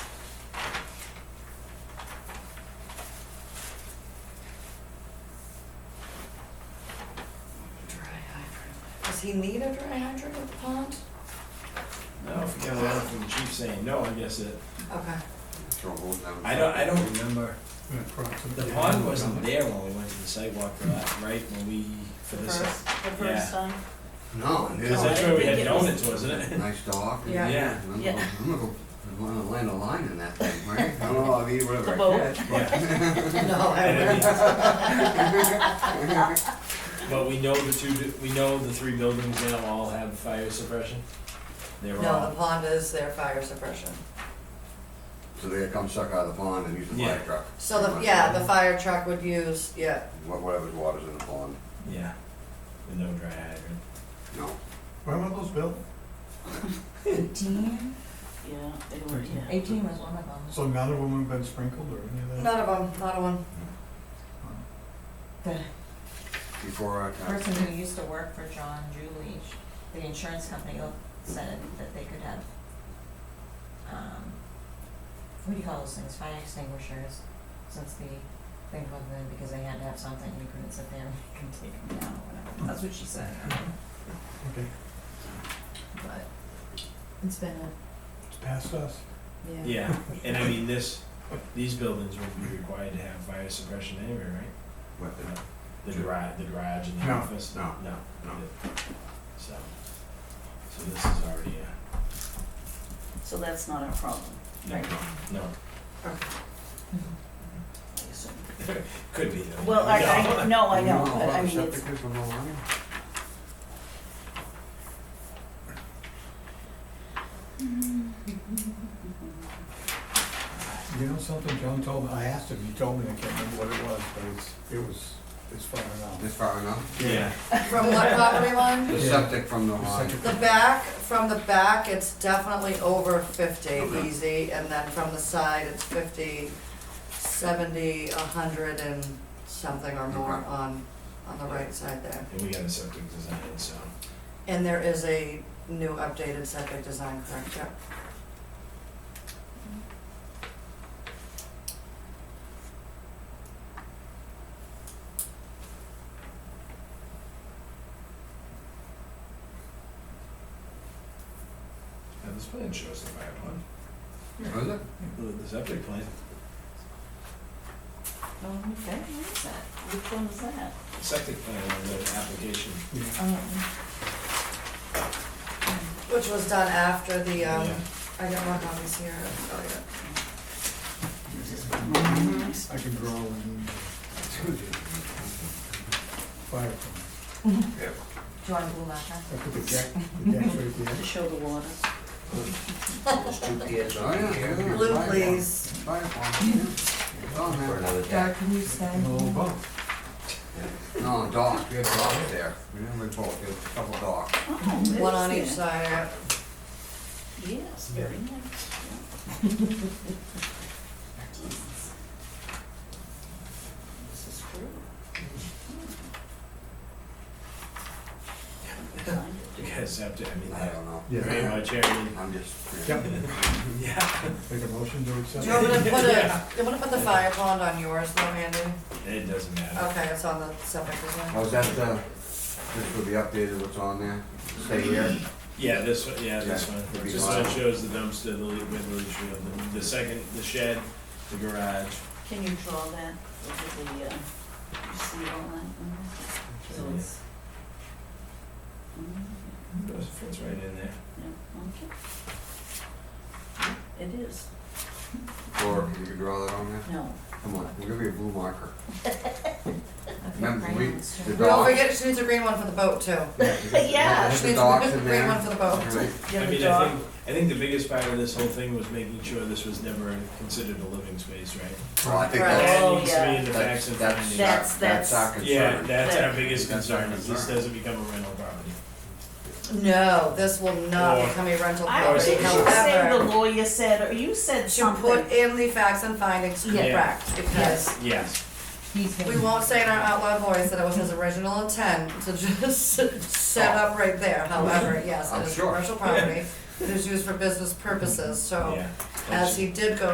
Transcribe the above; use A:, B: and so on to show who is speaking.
A: Does he need a dry hydrant at the pond?
B: No, if we got a letter from the chief saying no, I guess it,
A: Okay.
C: Throw a vote down.
B: I don't, I don't remember. The
D: The
B: pond wasn't there when we went to the sidewalk for that, right, when we, for
E: The
B: this.
E: first, the
B: yeah.
E: first time.
C: No,
B: Cause that's
C: it's
B: where we had donuts, wasn't it?
C: nice dog. and-
A: Yeah.
B: Yeah.
C: I'm
E: Yeah.
C: gonna, I'm gonna go, I'm gonna land a line in that thing, right? I don't know, I'll eat whatever
E: The
C: I
E: boat.
C: catch.
B: Yeah.
A: No, I
B: And I
A: wouldn't.
B: mean, But we know the two, we know the three buildings now all have fire suppression. They were
A: No, the
B: all,
A: pond is their fire suppression.
C: So they come suck out of the pond and use the
B: Yeah.
C: fire truck.
A: So the, yeah, the fire truck would use, yeah,
C: Wha- Whatever's water's in the pond,
B: yeah, with no dry hydrant.
C: no.
D: Where were those built?
F: Eighteen?
E: Yeah, they were, yeah.
F: Mm-hmm. Eighteen was one of them.
D: So none of them have been sprinkled or any
C: Mm.
D: of that?
A: none of them, not a one.
F: The
C: Before our time.
F: person who used to work for John Julie, sh- the insurance company, oh, said that they could have, um, what do you call those things, fire extinguishers, since the thing wasn't in, because they had to have something, we couldn't sit there and we can take them down or whatever. That's what she said,
D: Okay,
F: but it's been a,
D: it's past us.
F: yeah.
B: Yeah, and I mean, this, these buildings would be required to have fire suppression anyway, right?
C: What the-
B: The garage, the garage and the
D: No,
B: office?
C: no,
B: No.
C: no.
B: So, so this is already uh,
E: So that's not our problem,
B: a, no,
E: Right.
B: no,
E: I assume.
B: could be though.
E: Well, I, I, no, Oh, I know,
C: You
E: but I
C: about the
E: mean, it's,
C: septic is on the line?
D: You know something John told me, I asked him, he told me, I can't remember what it was, but it's, it was, it's far enough.
C: This far enough?
B: Yeah,
A: From what property line?
C: The
D: Yeah.
C: septic from the line.
A: The
D: Second-
A: back, from the back, it's definitely over fifty
C: Okay.
A: easy, and then from the side, it's fifty, seventy, a hundred and something or more
C: Okay.
A: on, on the right side there.
B: and we got a septic design, so,
A: And there is a new updated septic design, correct, yep.
B: now this plan shows the fire one,
C: Was Oh, it?
B: the septic plan,
E: oh, okay, what is that? Which one was that?
B: septic plan on the application.
F: Oh.
A: Which was done after the, um,
B: Yeah.
A: I got one copies here, oh yeah.
D: I can draw one. Fire truck.
F: Do you want to go back, huh?
D: I put the deck, the deck right
E: To
D: there.
E: show the water.
C: Oh, yeah, yeah, yeah.
A: Blue,
C: Fire
A: please.
C: pond. Fire pond, yeah. It's on there.
F: Doug, can you stay?
D: And a little boat.
C: No, dock, we have dock there. We didn't have a boat, we have a couple docks.
E: Oh, it
A: One
E: is
A: on each
E: there.
A: side, yeah.
E: Yes, very nice, yeah. Jesus. This is true. Hmm. Find it.
B: You guys have to, I mean,
C: I don't know.
D: Yeah.
B: very much, I mean,
C: I'm just.
D: Yep,
B: yeah,
D: make a motion to accept.
A: Do you want me to put
B: Yeah.
A: a, do you want to put the fire pond on yours though, Andy?
B: it doesn't matter.
A: Okay, it's on the septic design.
C: Oh, is that the, this will be updated, what's on there? Stay here?
B: Yeah, this one, yeah, this
C: Yeah,
B: one,
C: it'd be
B: this one
C: fine.
B: shows the dumpster, the, le- with the leach field, the- the second, the shed, the garage,
E: Can you draw that, over the, uh, you see all that? Mhm. So it's. Mhm.
B: Those fits right in there.
E: Yeah, okay. It is,
C: Or you can draw that on there?
E: no,
C: Come on, we'll give you a blue marker.
F: Okay,
C: Remember,
F: right
C: we-
F: on, it's
C: the
F: true.
A: Don't
C: Dock.
A: forget, she needs a green one for the boat too.
E: Yeah.
C: There's
A: She
C: the
A: needs
C: docks
A: a
C: in
A: green one
C: there.
A: for the boat.
C: Right.
E: you
B: I
E: have a
B: mean, I
E: dog?
B: think, I think the biggest part of this whole thing was making sure this was never considered a living space, right?
C: Well, I think
A: Right.
C: that's,
E: Oh,
B: That needs to be
E: yeah.
B: in the facts
C: that's,
B: and
C: that's,
B: findings.
E: That's-
C: our- that's our
E: that's-
C: concern.
B: Yeah, that's our
E: That-
B: biggest
C: That's our
B: concern, is this
C: concern.
B: doesn't become a rental property.
A: No, this will
B: Or-
A: not become a rental
E: I
B: Or
A: property,
E: didn't you say the
A: however,
E: lawyer said, or you said
A: to
E: something.
A: put in the facts and findings
B: Yeah.
A: correct, because
B: Yes.
F: He's gonna-
A: we won't say in our outloud voice that it was his original intent to just set up right there, however, yes,
C: I'm
A: it is
C: sure.
A: commercial property. It is used for business purposes, so
B: Yeah.
A: Oh. as he did go